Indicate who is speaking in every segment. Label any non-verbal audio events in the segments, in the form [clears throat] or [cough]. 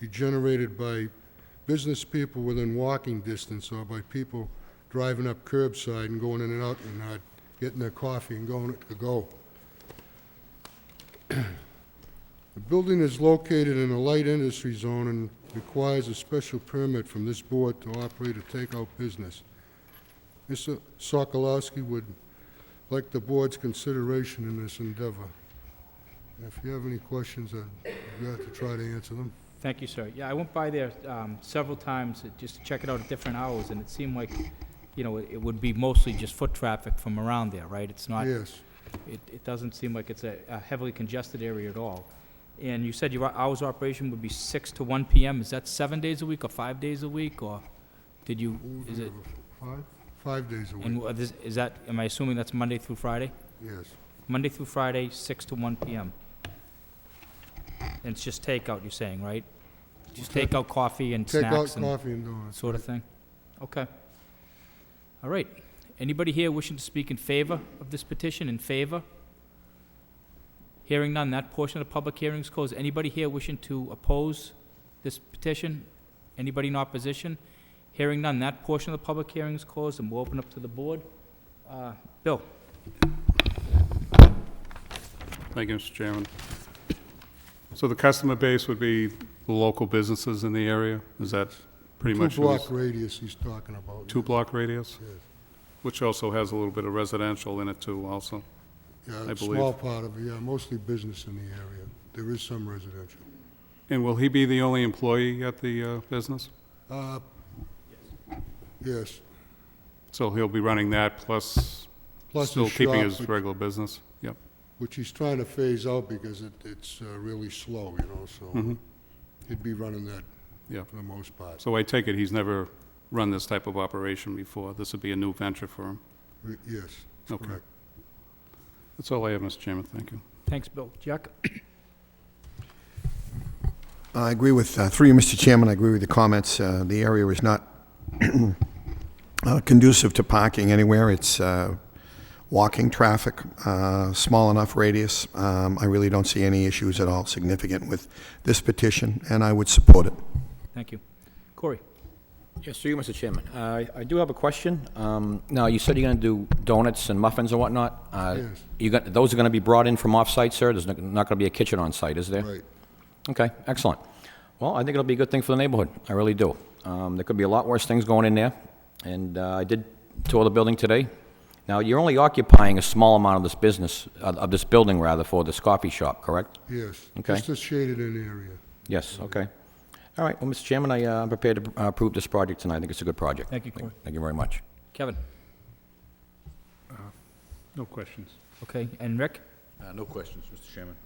Speaker 1: be generated by business people within walking distance or by people driving up curbside and going in and out and uh, getting their coffee and going to go. The building is located in a light industry zone and requires a special permit from this board to operate a takeout business. Mr. Sokolowski would like the board's consideration in this endeavor. If you have any questions, I'd be glad to try to answer them.
Speaker 2: Thank you, sir. Yeah, I went by there um, several times uh, just to check it out at different hours, and it seemed like, you know, it it would be mostly just foot traffic from around there, right? It's not, it,
Speaker 1: Yes,
Speaker 2: it doesn't seem like it's a a heavily congested area at all. And you said your hours of operation would be 6 to 1 PM. Is that seven days a week or five days a week, or did you, is it,
Speaker 1: five, five days a
Speaker 2: and
Speaker 1: week,
Speaker 2: what is is that, am I assuming that's Monday through Friday?
Speaker 1: yes.
Speaker 2: Monday through Friday, 6 to 1 PM. And it's just takeout, you're saying, right? Just
Speaker 1: Take-
Speaker 2: takeout coffee and
Speaker 1: Take out
Speaker 2: snacks and
Speaker 1: coffee and donuts.
Speaker 2: sort of thing? Okay. All right. Anybody here wishing to speak in favor of this petition, in favor? Hearing none, that portion of the public hearing is closed. Anybody here wishing to oppose this petition? Anybody in opposition? Hearing none, that portion of the public hearing is closed, and we'll open up to the board. Uh, Bill?
Speaker 3: Thank you, Mr. Chairman. So the customer base would be the local businesses in the area? Is that pretty much?
Speaker 1: Two block radius he's talking about.
Speaker 3: Two block radius,
Speaker 1: Yes.
Speaker 3: which also has a little bit of residential in it too also.
Speaker 1: Yeah,
Speaker 3: I
Speaker 1: a small
Speaker 3: believe.
Speaker 1: part of, it, yeah, mostly business in the area. There is some residential.
Speaker 3: And will he be the only employee at the uh, business?
Speaker 1: Uh, Yes,
Speaker 3: So he'll be running that plus
Speaker 1: plus the
Speaker 3: still keeping his
Speaker 1: shop, which-
Speaker 3: regular business? Yep.
Speaker 1: which he's trying to phase out because it, it's uh, really slow, you know, so
Speaker 3: Mhm.
Speaker 1: he'd be running that
Speaker 3: Yeah.
Speaker 1: for the most part.
Speaker 3: So I take it he's never run this type of operation before? This would be a new venture for him?
Speaker 1: Re- Yes,
Speaker 3: Okay.
Speaker 1: correct.
Speaker 3: That's all I have, Mr. Chairman. Thank you.
Speaker 2: Thanks, Bill. Jack?
Speaker 4: I agree with, uh, through you, Mr. Chairman, I agree with the comments. Uh, The area is not [clears throat] uh, conducive to parking anywhere. It's uh, walking traffic, uh, small enough radius. Um, I really don't see any issues at all significant with this petition, and I would support it.
Speaker 2: Thank you. Corey?
Speaker 5: Yes, through you, Mr. Chairman. Uh, I do have a question. Um, Now, you said you're going to do donuts and muffins and whatnot? Uh,
Speaker 1: Yes.
Speaker 5: You got, those are going to be brought in from off-site, sir? There's not going to be a kitchen on-site, is there?
Speaker 1: Right.
Speaker 5: Okay, excellent. Well, I think it'll be a good thing for the neighborhood. I really do. Um, There could be a lot worse things going in there, and uh, I did tour the building today. Now, you're only occupying a small amount of this business, of of this building, rather, for this coffee shop, correct?
Speaker 1: Yes.
Speaker 5: Okay.
Speaker 1: Just a shaded-in area.
Speaker 5: Yes, okay. All right, well, Mr. Chairman, I, uh, I'm prepared to uh, approve this project, and I think it's a good project.
Speaker 2: Thank you, Corey.
Speaker 5: Thank you very much.
Speaker 2: Kevin?
Speaker 3: No questions.
Speaker 2: Okay, and Rick?
Speaker 6: Uh, No questions, Mr. Chairman.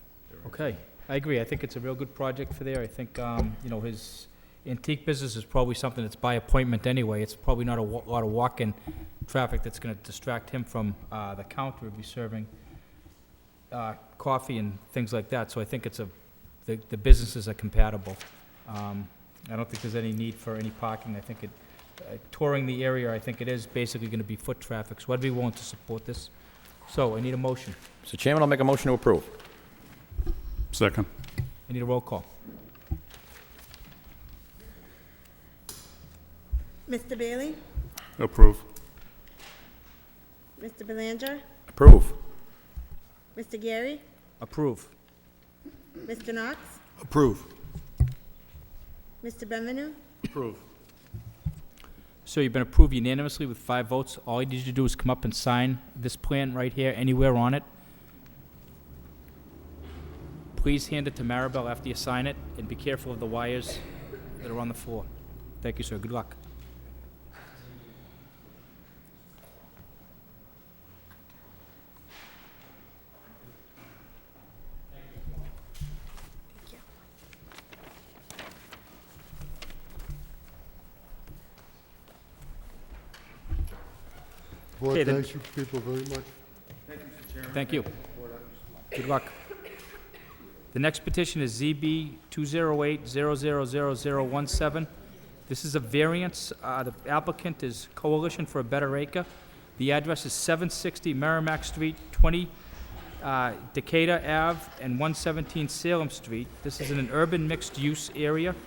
Speaker 2: Okay, I agree. I think it's a real good project for there. I think, um, you know, his antique business is probably something that's by appointment anyway. It's probably not a wa- lot of walk-in traffic that's gonna distract him from, uh, the counter be serving, uh, coffee and things like that. So I think it's a, the, the businesses are compatible. Um, I don't think there's any need for any parking. I think it, uh, touring the area, I think it is basically gonna be foot traffic, so I'd be willing to support this. So I need a motion.
Speaker 5: Mr. Chairman, I'll make a motion to approve.
Speaker 3: Second.
Speaker 2: I need a roll call.
Speaker 7: Mr. Bailey?
Speaker 3: Approve.
Speaker 7: Mr. Belanger?
Speaker 5: Approve.
Speaker 7: Mr. Gary?
Speaker 2: Approve.
Speaker 7: Mr. Knox?
Speaker 6: Approve.
Speaker 7: Mr. Benvenu?
Speaker 6: Approve.
Speaker 2: So you've been approved unanimously with five votes. All you need to do is come up and sign this plan right here, anywhere on it. Please hand it to Maribel after you sign it, and be careful of the wires that are on the floor. Thank you, sir. Good luck.
Speaker 1: Boy,
Speaker 2: Okay, then-
Speaker 1: thank you people very much.
Speaker 2: Thank you. Good luck. The next petition is ZB 208-0000017. This is a variance. Uh, The applicant is Coalition for a Better Acre. The address is 760 Merrimack Street, 20 uh, Decatur Ave, and 117 Salem Street. This is in an urban mixed-use area.